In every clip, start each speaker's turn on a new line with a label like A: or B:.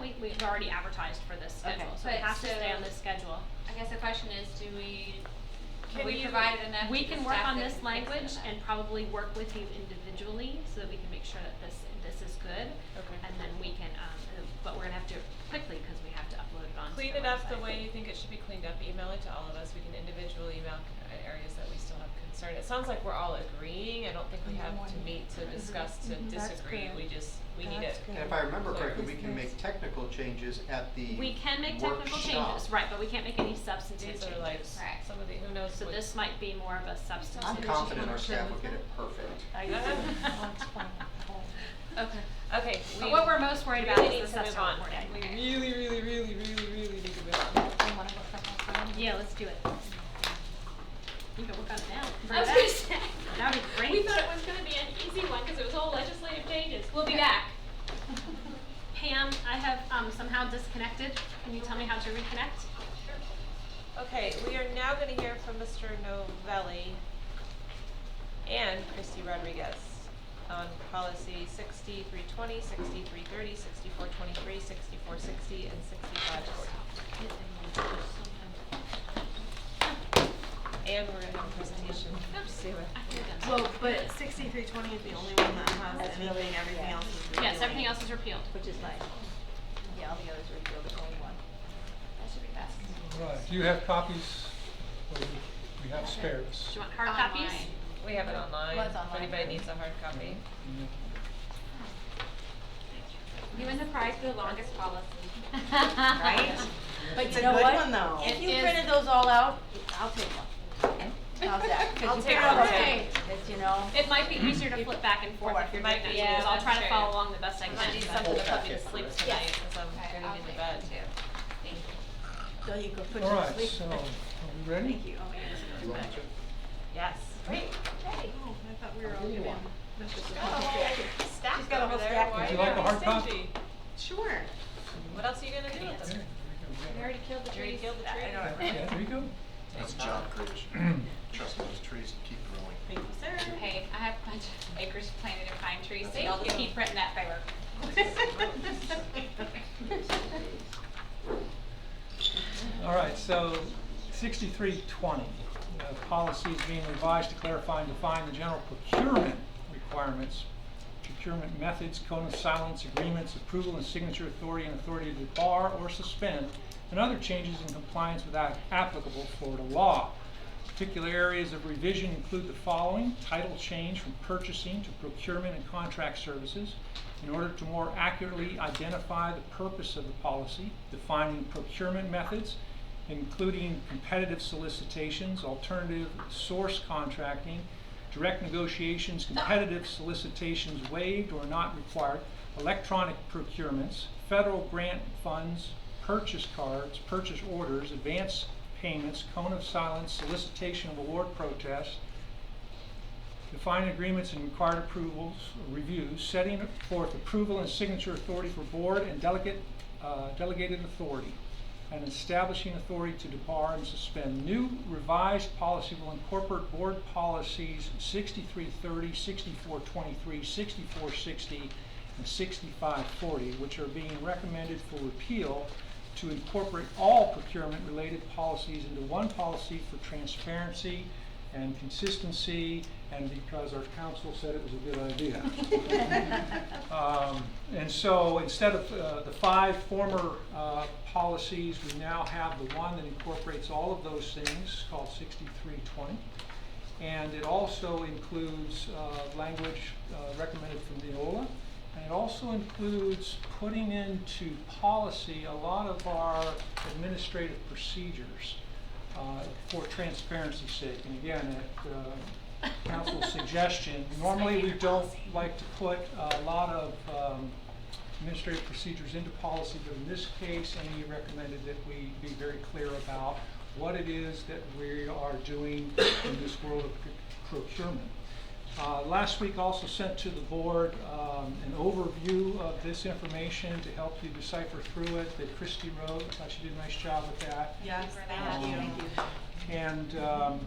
A: we've already advertised for this schedule,
B: Okay.
A: so it
C: But
A: has to
C: so-
A: stay on this schedule.
C: I guess the question is, do we,
A: Can
C: have we
A: you-
C: provided enough
A: We
C: to the
A: can work
C: staff
A: on
C: that
A: this
C: can fix it
A: language
C: enough?
A: and probably work with you individually so that we can make sure that this, this is good.
B: Okay.
A: And then we can, um, uh, but we're gonna have to do it quickly because we have to upload it onto the
D: Clean it up the
A: website.
D: way you think it should be cleaned up, email it to all of us, we can individually email c- uh, areas that we still have concern. It sounds like we're all agreeing, I don't think we have to meet to discuss, to
A: Mm-hmm.
B: Mhm. That's
D: disagree,
B: good.
D: we just, we need it.
B: That's
E: And if I remember
D: Clear.
E: correctly, we can make technical changes at the
A: We can make technical changes,
E: workshop.
A: right, but we can't make any substantive
D: These
A: changes.
D: are like,
C: Right.
D: some of the, who knows
A: So
D: what-
A: this might be more of a substantive.
E: I'm confident our staff will get it perfect.
B: I
D: Yeah.
A: Okay.
D: Okay, we.
A: But what we're most worried about
D: really
A: is the
D: need to move
A: subsequent
D: on.
A: wording.
D: We really, really, really, really, really need to move on.
A: Yeah, let's do it. You can work on it now.
F: I
A: Bring it
F: was
A: back.
F: gonna say.
A: That'd be great.
F: We thought it was gonna be an easy one, cause it was all legislative changes, we'll be back.
A: Pam, I have um, somehow disconnected. Can you tell me how to reconnect?
D: Okay, we are now gonna hear from Mr. Novelli and Christy Rodriguez on policy sixty-three twenty, sixty-three thirty, sixty-four twenty-three, sixty-four sixty, and sixty-five forty. And we're gonna have a presentation.
G: Well, but sixty-three twenty is the only one that has
B: That's really-
G: anything, everything
B: yeah.
G: else is repealing.
A: Yes, everything else is repealed.
B: Which is nice. Yeah, all the others are real, there's only one.
C: That should be best.
H: Right, do you have copies? Or do We have spares.
A: Do you want hard copies?
C: Online.
D: We have it online,
B: Well, it's
D: if
B: online.
D: anybody needs a hard copy.
C: You win the prize for the longest policy.
B: Right? But
G: It's
B: you
G: a
B: know
G: good
B: what?
G: one, though.
B: If
G: It
B: you
G: is-
B: printed those all out, I'll take one. How's that?
D: I'll
B: Cause you
D: take
B: figured out
D: one,
B: what
D: too.
B: Cause you know.
A: It might be easier to flip back and forth if you're doing
D: Might
A: that,
D: be,
A: because
D: yeah,
A: I'll try to
D: that's
A: follow
D: true.
A: along the best I
D: I
A: can.
D: might need something to put me to sleep tonight, cause I'm
C: Okay,
D: gonna
C: I'll
D: need a
C: take one
D: bed.
C: too. Thank you.
B: So you could put
H: All
B: your
H: right,
B: sleep.
H: so, are we ready?
G: Thank you, oh my goodness.
E: Do you want to?
D: Yes. Great.
G: Oh, I thought we were all giving. that's just a-
D: Stacked
B: got a
D: over
B: whole
D: there,
B: stack.
D: why are
H: Would you like a hard
D: being
H: copy?
D: stingy?
G: Sure.
D: What else are you gonna do with
H: Okay,
D: them?
H: there
A: killed the
D: You already killed the
G: I
D: tree.
G: know, I
H: we go. Yeah, there you go.
E: That's job creation. Trust me, those trees keep growing.
G: Thank you, sir.
C: Hey, I have a bunch of acres planted in pine trees, so y'all just
D: Thank you.
C: keep printing that paper.
H: All right, so sixty-three twenty, uh, policy is being revised to clarify and define the general procurement requirements, procurement methods, cone of silence, agreements, approval and signature authority, and authority to bar or suspend, and other changes in compliance with app- applicable Florida law. Particular areas of revision include the following, title change from purchasing to procurement and contract services in order to more accurately identify the purpose of the policy, defining procurement methods, including competitive solicitations, alternative source contracting, direct negotiations, competitive solicitations waived or not required, electronic procurements, federal grant funds, purchase cards, purchase orders, advance payments, cone of silence, solicitation of award protests, define agreements and required approvals, reviews, setting forth approval and signature authority for board and delegate, uh, delegated authority, and establishing authority to debar and suspend. New revised policy will incorporate board policies 6330, 6423, 6460, and 6540, which are being recommended for repeal to incorporate all procurement-related policies into one policy for transparency and consistency, and because our council said it was a good idea. Um, And so instead of uh, the five former uh, policies, we now have the one that incorporates all of those things, called 6320. And it also includes uh, language uh, recommended from Neola. And it also includes putting into policy a lot of our administrative procedures uh, for transparency's sake. And again, at uh, council's suggestion, normally we don't like to put a lot of um, administrative procedures into policy, but in this case, Amy recommended that we be very clear about what it is that we are doing in this world of procurement. Uh, Last week also sent to the board um, an overview of this information to help you decipher through it that Christie wrote. I thought she did a nice job with that.
G: Yes,
C: for that.
G: thank you.
H: Thank you. And um,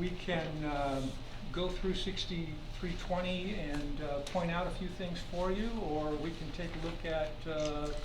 H: we can um, go through 6320 and uh, point out a few things for you, or we can take a look at uh,